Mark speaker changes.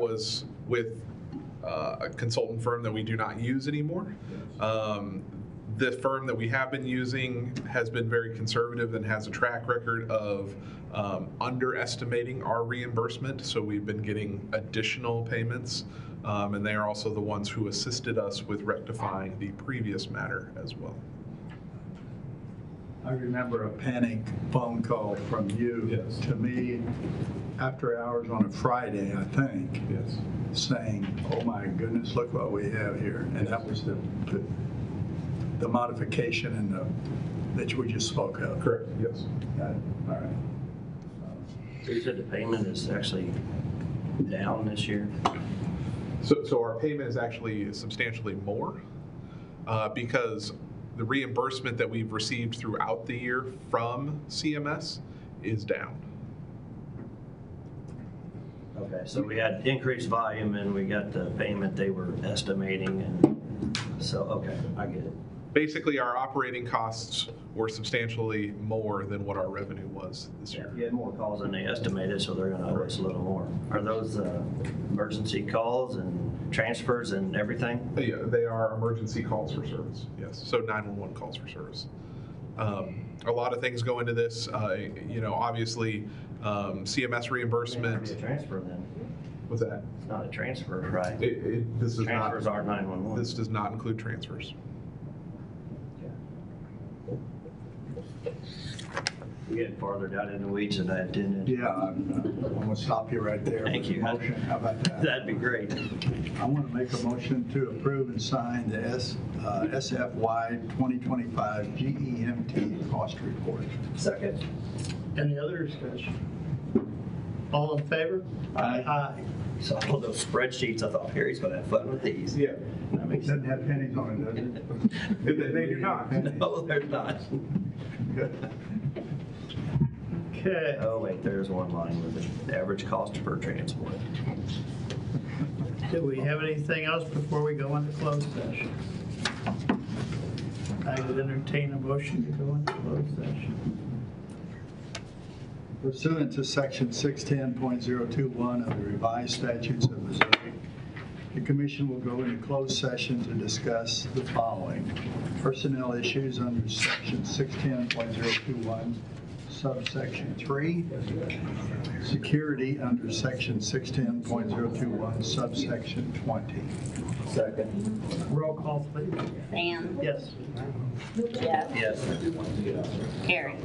Speaker 1: was with uh, a consultant firm that we do not use anymore. Um, The firm that we have been using has been very conservative and has a track record of um, underestimating our reimbursement, so we've been getting additional payments. Um, And they are also the ones who assisted us with rectifying the previous matter as well.
Speaker 2: I remember a panic phone call from you
Speaker 1: Yes.
Speaker 2: to me after hours on a Friday, I think,
Speaker 1: Yes.
Speaker 2: saying, oh my goodness, look what we have here. And that was the, the modification and the, that we just spoke of.
Speaker 1: Correct, yes.
Speaker 2: Got it. All right.
Speaker 3: So you said the payment is actually down this year?
Speaker 1: So, so our payment is actually substantially more uh, because the reimbursement that we've received throughout the year from CMS is down.
Speaker 3: Okay, so we had increased volume and we got the payment they were estimating and, so, okay, I get it.
Speaker 1: Basically, our operating costs were substantially more than what our revenue was this
Speaker 3: Yeah,
Speaker 1: year.
Speaker 3: You had more calls than they estimated, so they're gonna owe us a little more. Are those uh, emergency calls and transfers and everything?
Speaker 1: But yeah, they are emergency calls for service, yes, so 911 calls for service. Um, A lot of things go into this, uh, you know, obviously, um, CMS
Speaker 3: It's
Speaker 1: reimbursement.
Speaker 3: not a transfer then.
Speaker 1: What's that?
Speaker 3: It's not a transfer, right?
Speaker 1: It- it- This is not,
Speaker 3: Transfers are
Speaker 1: this
Speaker 3: 911.
Speaker 1: does not include transfers.
Speaker 3: We get farther down in the weeds than I intended.
Speaker 2: Yeah, I'm Uh, I'm gonna stop you right there. with
Speaker 3: Thank
Speaker 2: the
Speaker 3: you.
Speaker 2: Motion, how about that?
Speaker 3: That'd be great.
Speaker 2: I want to make a motion to approve and sign the S, uh, SFY 2025 GEMT E cost report.
Speaker 4: Second. Any other discussion? All in favor?
Speaker 2: Aye.
Speaker 3: So all those spreadsheets, I thought Perry's gonna have fun with these.
Speaker 1: Yeah.
Speaker 3: That makes
Speaker 2: Doesn't have pennies on it, does it?
Speaker 1: They, they do not.
Speaker 3: No, they're not.
Speaker 4: Okay,
Speaker 3: Oh, wait, there's one line with it. The average cost per transport.
Speaker 4: do we have anything else before we go into closed session? I would entertain a motion to go into closed session.
Speaker 2: Pursuant to section 610.021 of the revised statutes of Missouri, the commission will go into closed session to discuss the following. Personnel issues under section 610.021 subsection 3. Security under section 610.021 subsection 20. Second.
Speaker 4: Roll call, please.
Speaker 5: Sam,
Speaker 4: Yes.
Speaker 5: Jeff,
Speaker 3: Yes.
Speaker 5: Carrie.